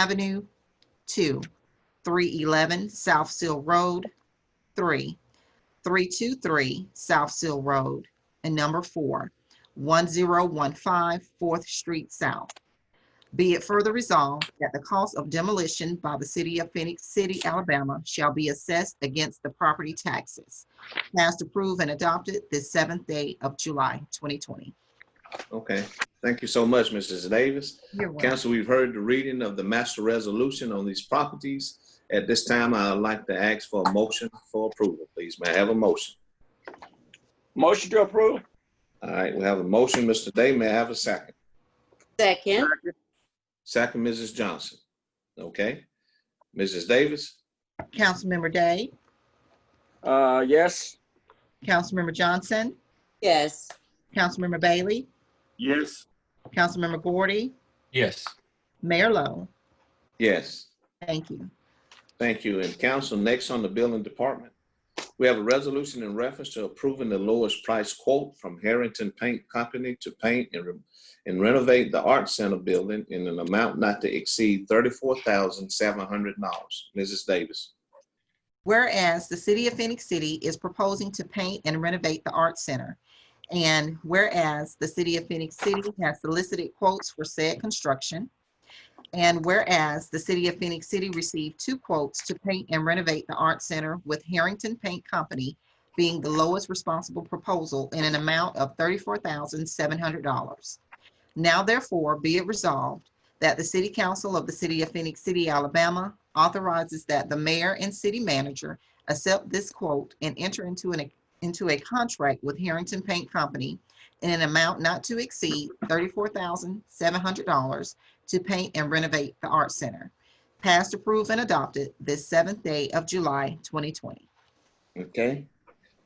Avenue, two, three eleven South Seal Road, three, three two three South Seal Road, and number four, one zero one five Fourth Street South. Be it further resolved that the cost of demolition by the city of Phoenix City, Alabama shall be assessed against the property taxes. Passed, approved, and adopted this seventh day of July, 2020. Okay, thank you so much, Mrs. Davis. You're welcome. Council, we've heard the reading of the master resolution on these properties. At this time, I'd like to ask for a motion for approval, please. May I have a motion? Motion to approve? All right, we have a motion, Mr. Day. May I have a second? Second, Second, Mrs. Johnson. Okay. Mrs. Davis? Councilmember Day, Uh, yes. Councilmember Johnson, yes. Councilmember Bailey, Yes. Councilmember Gordy, Yes. Mayor Lo. Yes. Thank you. Thank you. And council, next on the building department, we have a resolution in reference to approving the lowest price quote from Harrington Paint Company to paint and re- and renovate the Art Center building in an amount not to exceed thirty-four thousand seven hundred dollars. Mrs. Davis. Whereas the city of Phoenix City is proposing to paint and renovate the Art Center. And whereas the city of Phoenix City has solicited quotes for said construction. And whereas the city of Phoenix City received two quotes to paint and renovate the Art Center with Harrington Paint Company being the lowest responsible proposal in an amount of thirty-four thousand seven hundred dollars. Now therefore be it resolved that the City Council of the City of Phoenix City, Alabama authorizes that the mayor and city manager accept this quote and enter into an, into a contract with Harrington Paint Company in an amount not to exceed thirty-four thousand seven hundred dollars to paint and renovate the Art Center. Passed, approved, and adopted this seventh day of July, twenty twenty. Okay.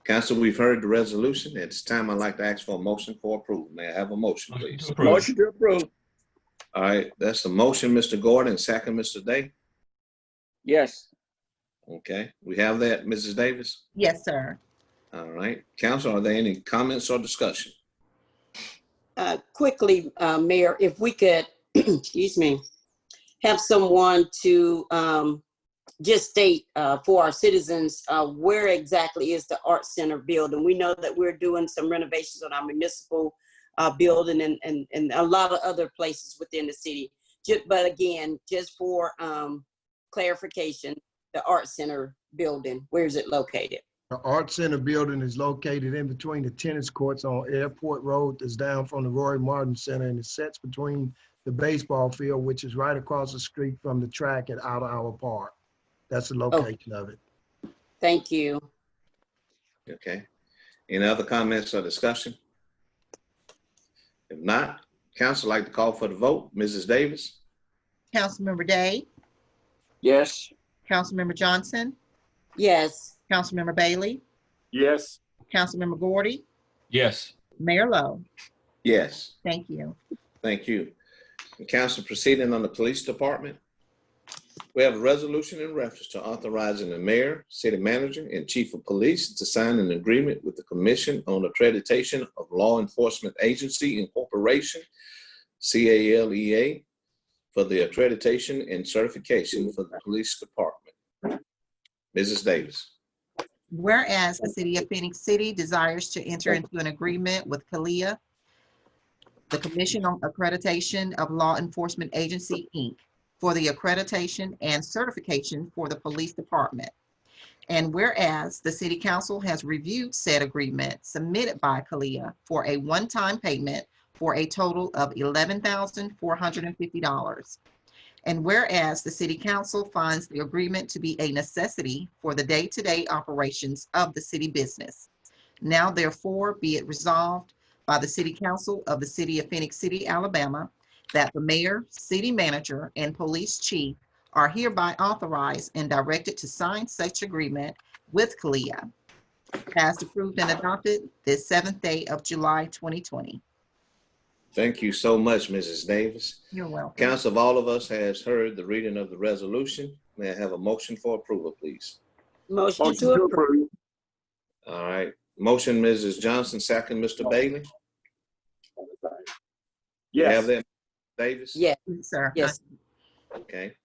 Council, we've heard the resolution. At this time, I'd like to ask for a motion for approval. May I have a motion, please? Approve. Motion to approve? All right, that's the motion, Mr. Gordon, second, Mr. Day. Yes. Okay, we have that, Mrs. Davis. Yes, sir. All right, council, are there any comments or discussion? Uh, Quickly, uh, Mayor, if we could, excuse me, have someone to um, just state uh, for our citizens, uh, where exactly is the Art Center building? We know that we're doing some renovations on our municipal uh, building and, and, and a lot of other places within the city. Ju- But again, just for um, clarification, the Art Center building, where is it located? The Art Center building is located in between the tennis courts on Airport Road that's down from the Roy Martin Center and it sits between the baseball field, which is right across the street from the track at Outer Hour Park. That's the location of it. Thank you. Okay. Any other comments or discussion? If not, council like to call for the vote. Mrs. Davis? Councilmember Day, Yes. Councilmember Johnson, Yes, Councilmember Bailey, Yes. Councilmember Gordy, Yes. Mayor Lo. Yes. Thank you. Thank you. And Council proceeding on the police department. We have a resolution in reference to authorizing the mayor, city manager, and chief of police to sign an agreement with the Commission on Accreditation of Law Enforcement Agency Incorporation, CALEA, E for the accreditation and certification for the police department. Mrs. Davis. Whereas the city of Phoenix City desires to enter into an agreement with Kalia, the Commission on Accreditation of Law Enforcement Agency, Inc., for the accreditation and certification for the police department. And whereas the city council has reviewed said agreement submitted by Kalia for a one-time payment for a total of eleven thousand four hundred and fifty dollars. And whereas the city council finds the agreement to be a necessity for the day-to-day operations of the city business. Now therefore be it resolved by the city council of the city of Phoenix City, Alabama, that the mayor, city manager, and police chief are hereby authorized and directed to sign such agreement with CALIA. Passed, approved, and adopted this seventh day of July, 2020. Thank you so much, Mrs. Davis. You're welcome. Council of all of us has heard the reading of the resolution. May I have a motion for approval, please? motion Motion to to approve. approve. All right, motion, Mrs. Johnson, second, Mr. Bailey. We Have Yes. that, Davis? Yes. Sir. Yes, Okay,